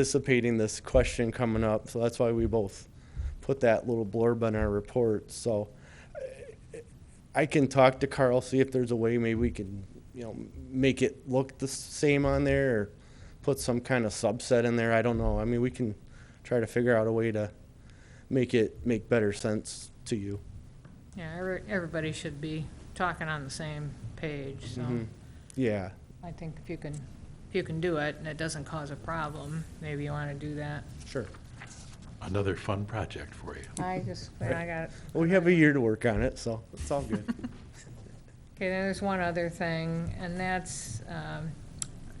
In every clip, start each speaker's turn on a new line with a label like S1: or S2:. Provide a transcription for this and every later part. S1: anticipating this question coming up, so that's why we both put that little blurb in our report, so eh, I can talk to Carl, see if there's a way maybe we can, you know, make it look the same on there, or put some kind of subset in there, I don't know, I mean, we can try to figure out a way to make it make better sense to you.
S2: Yeah, every- everybody should be talking on the same page, so
S1: Mhm. Yeah,
S2: I think if you can, if you can do it and it doesn't cause a problem, maybe you want to do that.
S1: sure.
S3: Another fun project for you.
S2: I just, I got it.
S1: Well, We have a year to work on it, so it's all good.
S2: Okay, then there's one other thing, and that's, um,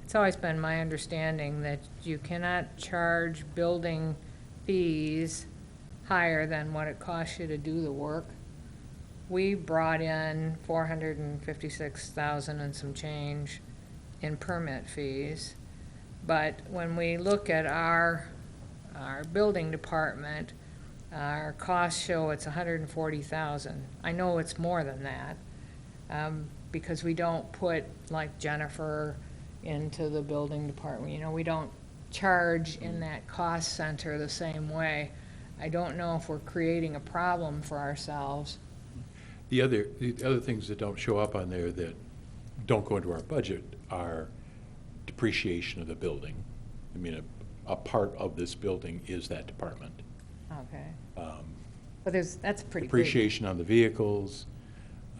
S2: it's always been my understanding that you cannot charge building fees higher than what it costs you to do the work. We brought in four hundred and fifty-six thousand and some change in permit fees. But when we look at our, our building department, our costs show it's hundred and forty thousand. I know it's more than that, um, because we don't put, like Jennifer, into the building department, you know, we don't charge in that cost center the same way. I don't know if we're creating a problem for ourselves.
S3: The other, the other things that don't show up on there that don't go into our budget are depreciation of the building. I mean, a, a part of this building is that department.
S2: Okay.
S3: Um,
S2: But there's, that's pretty big.
S3: Depreciation on the vehicles,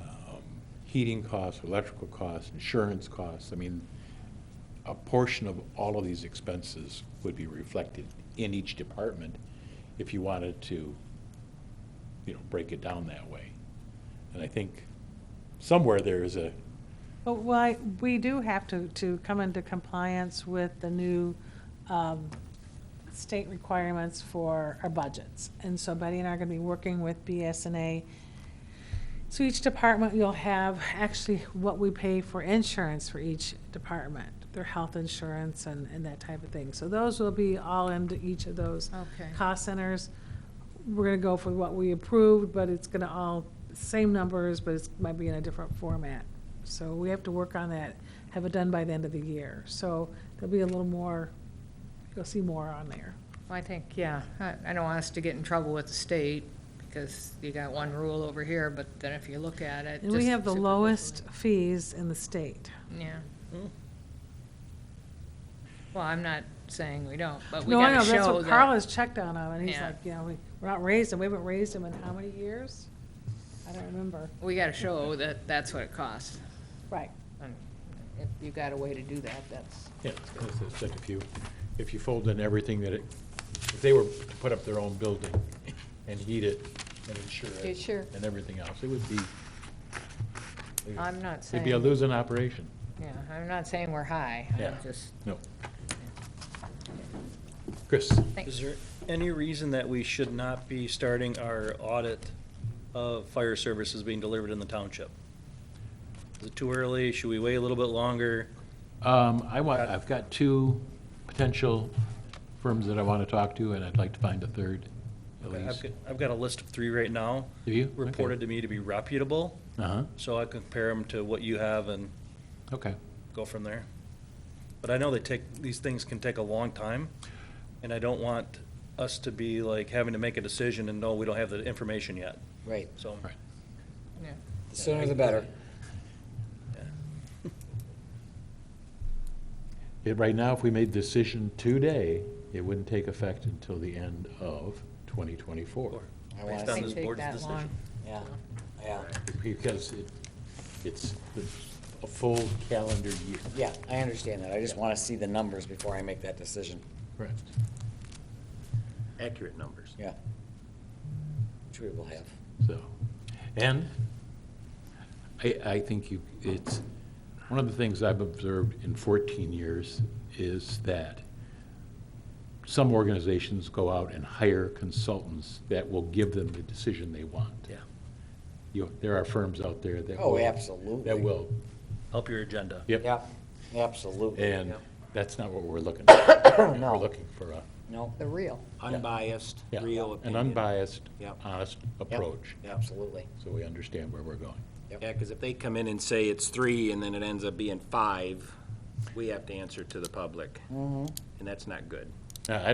S3: um, heating costs, electrical costs, insurance costs. I mean, a portion of all of these expenses would be reflected in each department if you wanted to, you know, break it down that way. And I think somewhere there is a,
S4: But why, we do have to, to come into compliance with the new um, state requirements for our budgets. And so Betty and I are going to be working with BSNA. So each department, you'll have actually what we pay for insurance for each department, their health insurance and, and that type of thing. So those will be all into each of those
S2: Okay.
S4: cost centers. We're gonna go for what we approved, but it's gonna all, same numbers, but it's, might be in a different format. So we have to work on that, have it done by the end of the year. So there'll be a little more, you'll see more on there.
S2: I think, yeah, I, I don't want us to get in trouble with the state, because you got one rule over here, but then if you look at it.
S4: And we
S2: just
S4: have the
S2: superficially-
S4: lowest fees in the state.
S2: Yeah.
S5: Mm.
S2: Well, I'm not saying we don't, but we
S4: No, I
S2: gotta
S4: know,
S2: show that.
S4: that's what Carl has checked on them, and he's
S2: Yeah.
S4: like, you know, we- we're not raising, we haven't raised them in how many years? I don't remember.
S2: We gotta show that that's what it costs.
S4: Right.
S2: And If you got a way to do that, that's,
S3: yeah, it's like if you, if you fold in everything that it, if they were to put up their own building and heat it and insure
S2: Yeah,
S3: it.
S2: sure.
S3: And everything else, it would be,
S2: I'm not
S3: it'd be a
S2: saying,
S3: losing operation.
S2: yeah, I'm not saying we're high. I'm
S3: Yeah.
S2: just,
S3: No. Chris?
S2: think-
S5: Is there any reason that we should not be starting our audit of fire services being delivered in the township? Is it too early? Should we wait a little bit longer?
S3: Um, I want, I've got two potential firms that I want to talk to, and I'd like to find a third, at
S5: I've
S3: least.
S5: got, I've got a list of three right now,
S3: Do you? Okay.
S5: reported to me to be reputable,
S3: Uh-huh,
S5: so I compare them to what you have and
S3: okay.
S5: go from there. But I know they take, these things can take a long time, and I don't want us to be like having to make a decision and no, we don't have the information yet,
S6: Right,
S5: so.
S3: Right.
S2: yeah.
S6: the sooner the better.
S3: It- Right now, if we made decision today, it wouldn't take effect until the end of 2024.
S6: I
S5: Based
S6: want
S5: on
S6: to
S5: this
S6: see,
S2: Take
S5: board's
S2: that
S5: decision.
S2: long.
S6: yeah, yeah,
S3: Because it, it's the- a full calendar year.
S6: yeah, I understand that. I just want to see the numbers before I make that decision,
S3: Correct.
S5: Accurate numbers.
S6: yeah. Which we will have.
S3: So, and I, I think you, it's, one of the things I've observed in 14 years is that some organizations go out and hire consultants that will give them the decision they want.
S5: Yeah.
S3: You, there are firms out there that
S6: Oh,
S3: will.
S6: absolutely.
S3: That will,
S5: Help your agenda.
S3: yep.
S6: Yeah, absolutely.
S3: And
S6: Yeah.
S3: that's not what we're looking for.
S6: No.
S3: We're looking for a,
S6: No,
S2: The real.
S6: unbiased,
S3: yeah,
S6: real
S3: an
S6: opinion.
S3: unbiased,
S7: Yep.
S3: honest
S6: Yep,
S3: approach,
S6: Absolutely.
S3: so we understand where we're going.
S7: Yeah, because if they come in and say it's three and then it ends up being five, we have to answer to the public. And that's not good.
S3: I